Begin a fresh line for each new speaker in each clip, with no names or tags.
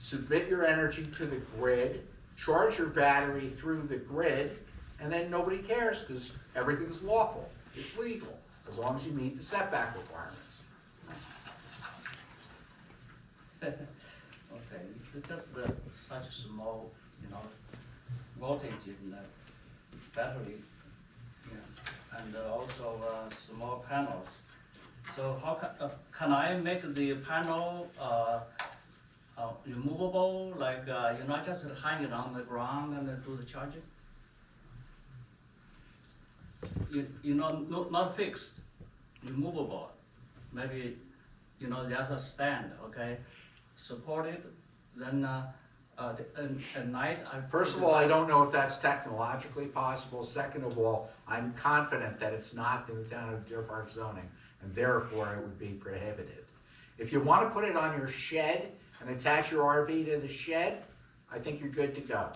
submit your energy to the grid, charge your battery through the grid, and then nobody cares because everything's lawful, it's legal, as long as you meet the setback requirements.
Okay, it's just uh, such small, you know, voltage in the battery. yeah, And uh, also uh, small panels. So how ca- uh, can I make the panel uh, uh, removable, like, uh, you know, just hang it on the ground and then do the charging? You, you know, no- not fixed, removable. Maybe, you know, just a stand, okay? Support it, then uh, uh, the- and- at night I. put
First of
it-
all, I don't know if that's technologically possible. Second of all, I'm confident that it's not in the town of Deer Park zoning, and therefore it would be prohibited. If you want to put it on your shed and attach your RV to the shed, I think you're good to go.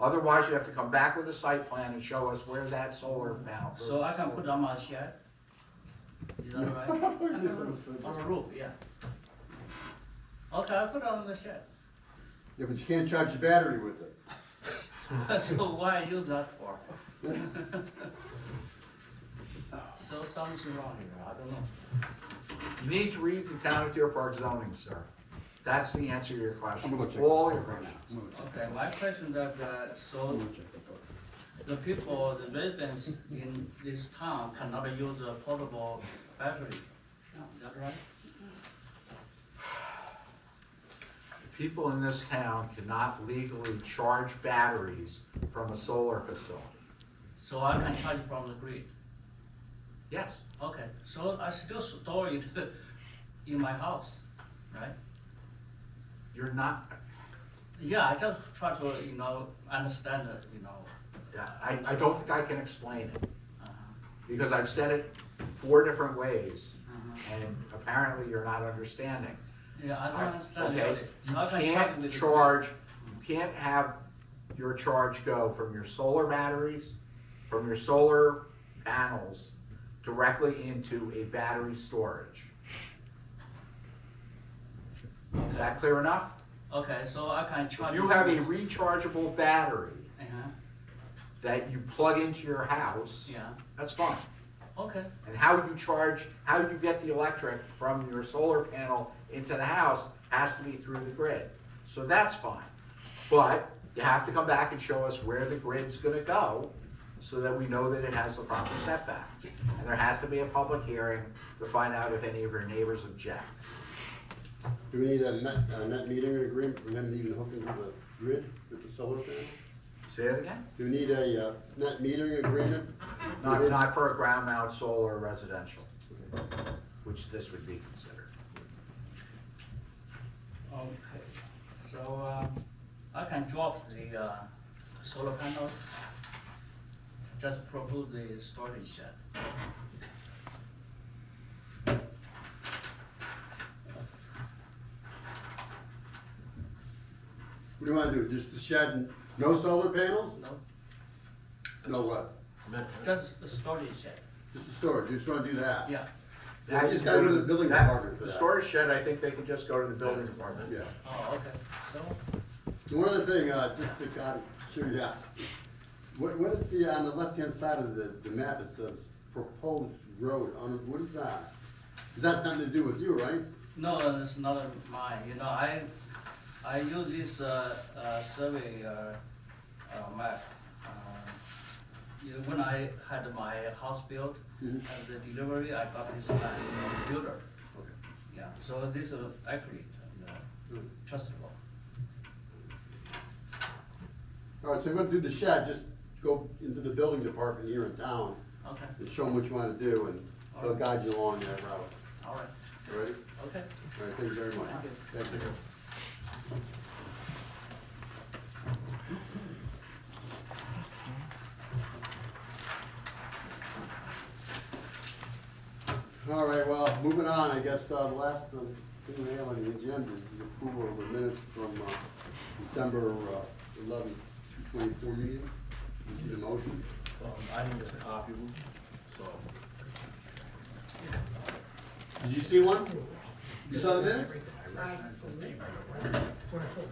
Otherwise, you have to come back with a site plan and show us where that solar mount.
So I can put on my shed? Is that right? On the roof, on the roof, yeah. Okay, I put on the shed.
Yeah, but you can't charge the battery with it.
So why use that for? So something's wrong here, I don't know.
You need to read the town of Deer Park zoning, sir. That's the answer to your question,
I'm gonna go check.
all your
Right now.
questions.
I'm gonna go check.
Okay, my question that, uh,
I'm
so
gonna check that out.
the people, the residents in this town cannot use a portable battery. Is that right?
People in this town cannot legally charge batteries from a solar facility.
So I can charge from the grid.
Yes,
Okay, so I still store it in my house, right?
you're not,
Yeah, I just try to, you know, understand it, you know.
I, I don't think I can explain it,
Uh-huh,
because I've said it four different ways,
uh-huh.
and apparently you're not understanding.
Yeah, I don't understand.
Okay,
really.
you
How can I it
can't
with-
charge, you can't have your charge go from your solar batteries, from your solar panels, directly into a battery storage. Is that clear enough?
Okay, so I can charge.
If you have a
it-
rechargeable battery
Uh-huh,
that you plug into your house,
Yeah,
that's fine.
okay,
And how you charge, how you get the electric from your solar panel into the house has to be through the grid. So that's fine. But you have to come back and show us where the grid's gonna go so that we know that it has the proper setback. And there has to be a public hearing to find out if any of your neighbors object.
Do we need a net, a net metering agreement for them to even hook into the grid with the solar panel?
Say it again?
Do we need a, uh, net metering agreement?
Not, not for a ground mount solar residential, which this would be considered.
okay. So, um, I can drop the, uh, solar panel, just propose the storage shed.
What do you wanna do, just the shed and no solar panels?
No,
No what?
just the storage shed,
Just the storage, you just wanna do that?
yeah,
Yeah, you just gotta go to the building
That-
department for
The
that.
storage shed, I think they can just go to the building department.
Yeah.
oh, okay, so,
And one other thing, uh, just to, out of curiosity, what, what is the, on the left-hand side of the, the map, it says proposed road, on, what is that? Is that nothing to do with you, right?
No, it's not mine, you know, I, I use this, uh, uh, survey, uh, uh, map. uh, You know, when I had my house built,
Mhm.
and the delivery, I got this map from the builder,
Okay.
yeah, so this is accurate and uh,
Mm.
trustable.
All right, so we're gonna do the shed, just go into the building department here in town
Okay,
and show them what you wanna do and they'll guide you along that route.
all right,
All right?
okay.
All right, thank you very much.
Thank you.
Thank you. All right, well, moving on, I guess, uh, the last uh, thing we have on the agenda is the approval of the minutes from, uh, December, uh, eleventh, two twenty-four meeting. You see the motion?
Um, I didn't get a copy of them, so.
Did you see one? You saw the minutes?
When I think